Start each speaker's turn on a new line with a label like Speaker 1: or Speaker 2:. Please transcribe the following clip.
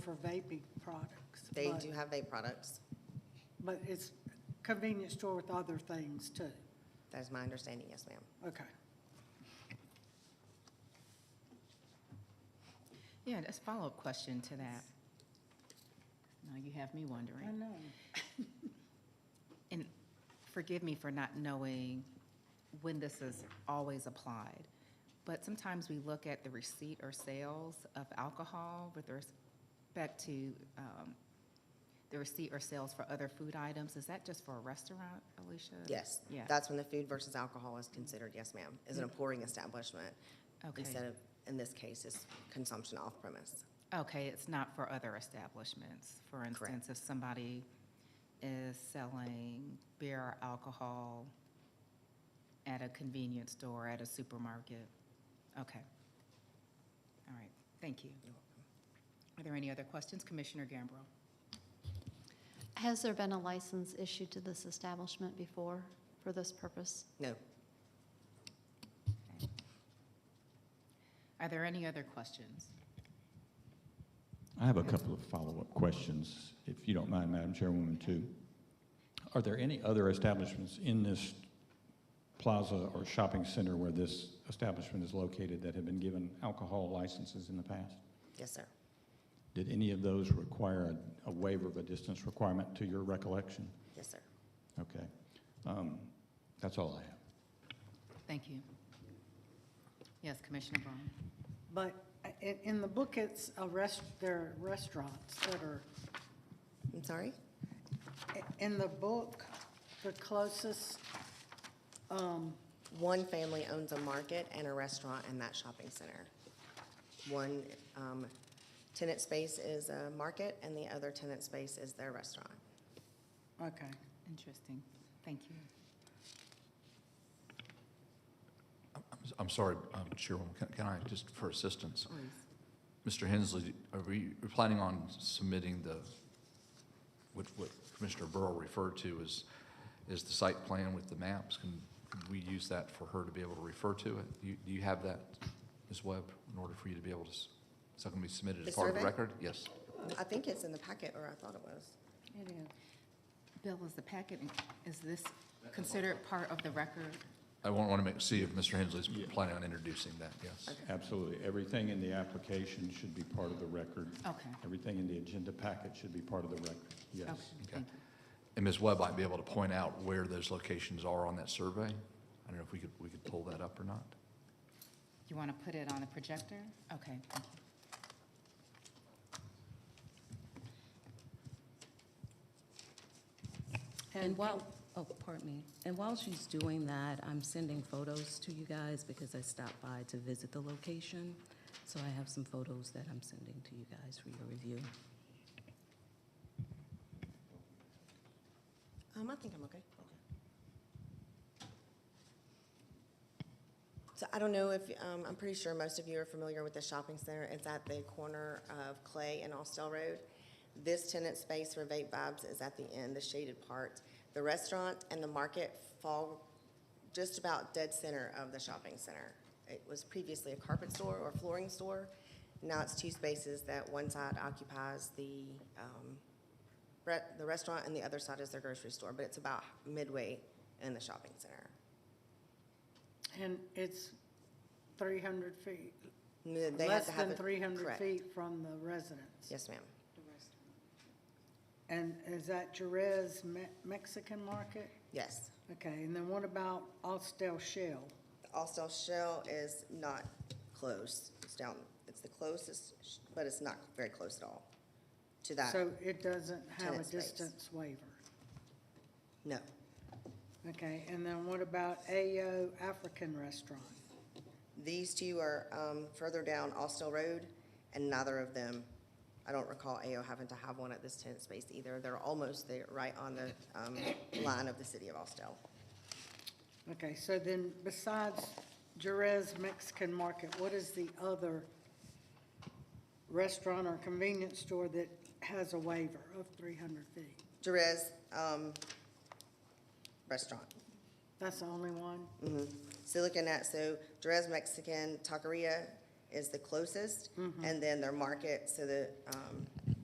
Speaker 1: for vaping products.
Speaker 2: They
Speaker 1: but-
Speaker 2: do have vape products.
Speaker 1: But it's convenience store with other things too.
Speaker 2: That is my understanding, yes, ma'am.
Speaker 1: Okay.
Speaker 3: Yeah, that's a follow-up question to that. Now you have me wondering.
Speaker 1: I know.
Speaker 3: And forgive me for not knowing when this is always applied, but sometimes we look at the receipt or sales of alcohol with respect to um, the receipt or sales for other food items. Is that just for a restaurant, Alicia?
Speaker 2: Yes.
Speaker 3: Yeah.
Speaker 2: That's when the food versus alcohol is considered, yes, ma'am, is an pouring establishment.
Speaker 3: Okay.
Speaker 2: Instead of, in this case, it's consumption off premise.
Speaker 3: Okay, it's not for other establishments. For instance, if somebody is selling beer or alcohol at a convenience store, at a supermarket. Okay. All right, thank you. Are there any other questions? Commissioner Gambrell?
Speaker 4: Has there been a license issued to this establishment before for this purpose?
Speaker 2: No,
Speaker 3: Are there any other questions?
Speaker 5: I have a couple of follow-up questions, if you don't mind, Madam Chairwoman, too. Are there any other establishments in this plaza or shopping center where this establishment is located that have been given alcohol licenses in the past?
Speaker 2: yes, sir.
Speaker 5: Did any of those require a- a waiver of a distance requirement to your recollection?
Speaker 2: Yes, sir.
Speaker 5: Okay. Um, That's all I have.
Speaker 3: Thank you. Yes, Commissioner Braun?
Speaker 1: But i- in, in the book, it's a rest, there are restaurants that are,
Speaker 2: I'm sorry?
Speaker 1: i- in the book, the closest, um,
Speaker 2: One family owns a market and a restaurant in that shopping center. One um, tenant space is a market and the other tenant space is their restaurant.
Speaker 1: okay.
Speaker 3: Interesting. Thank you.
Speaker 6: I'm- I'm sorry, um, Chairwoman, can- can I, just for assistance,
Speaker 3: Please.
Speaker 6: Mr. Hensley, are we we're planning on submitting the, what what Commissioner Burrow referred to as, is the site plan with the maps? Can can we use that for her to be able to refer to it? You- Do you have that, Ms. Webb, in order for you to be able to, s- is that going to be submitted
Speaker 2: The
Speaker 6: as part of the
Speaker 2: survey?
Speaker 6: record? Yes.
Speaker 2: I think it's in the packet, or I thought it was.
Speaker 1: It is.
Speaker 3: Bill, is the packet, is this considered part of the record?
Speaker 6: I want to make, see if Mr. Hensley's planning on introducing that, yes.
Speaker 5: Absolutely. Everything in the application should be part of the record.
Speaker 3: Okay.
Speaker 5: Everything in the agenda packet should be part of the record,
Speaker 3: Okay,
Speaker 5: yes.
Speaker 3: thank you.
Speaker 6: And Ms. Webb might be able to point out where those locations are on that survey. I don't know if we could, we could pull that up or not.
Speaker 3: You want to put it on the projector? Okay, thank you.
Speaker 7: And while, oh, pardon me. And while she's doing that, I'm sending photos to you guys because I stopped by to visit the location. So I have some photos that I'm sending to you guys for your review.
Speaker 2: Um, I think I'm okay. So I don't know if, um, I'm pretty sure most of you are familiar with the shopping center. It's at the corner of Clay and Austell Road. This tenant space for Vape Vibes is at the end, the shaded part. The restaurant and the market fall just about dead center of the shopping center. It was previously a carpet store or flooring store. Now it's two spaces that one side occupies the, um, re- the restaurant and the other side is their grocery store, but it's about midway in the shopping center.
Speaker 1: And it's 300 feet,
Speaker 2: N- They have
Speaker 1: less
Speaker 2: to have
Speaker 1: than
Speaker 2: it-
Speaker 1: 300
Speaker 2: correct.
Speaker 1: feet from the residence.
Speaker 2: Yes, ma'am.
Speaker 1: And is that Jerez Me- Mexican Market?
Speaker 2: Yes.
Speaker 1: Okay, and then what about Austell Shell?
Speaker 2: The Austell Shell is not close. It's down, it's the closest, sh- but it's not very close at all to that.
Speaker 1: So it doesn't have a
Speaker 2: Tenant space.
Speaker 1: distance waiver.
Speaker 2: No.
Speaker 1: Okay, and then what about AO African Restaurant?
Speaker 2: These two are um, further down Austell Road, and neither of them, I don't recall AO having to have one at this tenant space either. They're almost there, right on the um, line of the city of Austell.
Speaker 1: Okay, so then besides Jerez Mexican Market, what is the other restaurant or convenience store that has a waiver of 300 feet?
Speaker 2: Jerez um, Restaurant.
Speaker 1: That's the only one?
Speaker 2: Mhm. So looking at, so Jerez Mexican Taqueria is the closest, and then their market, so the um,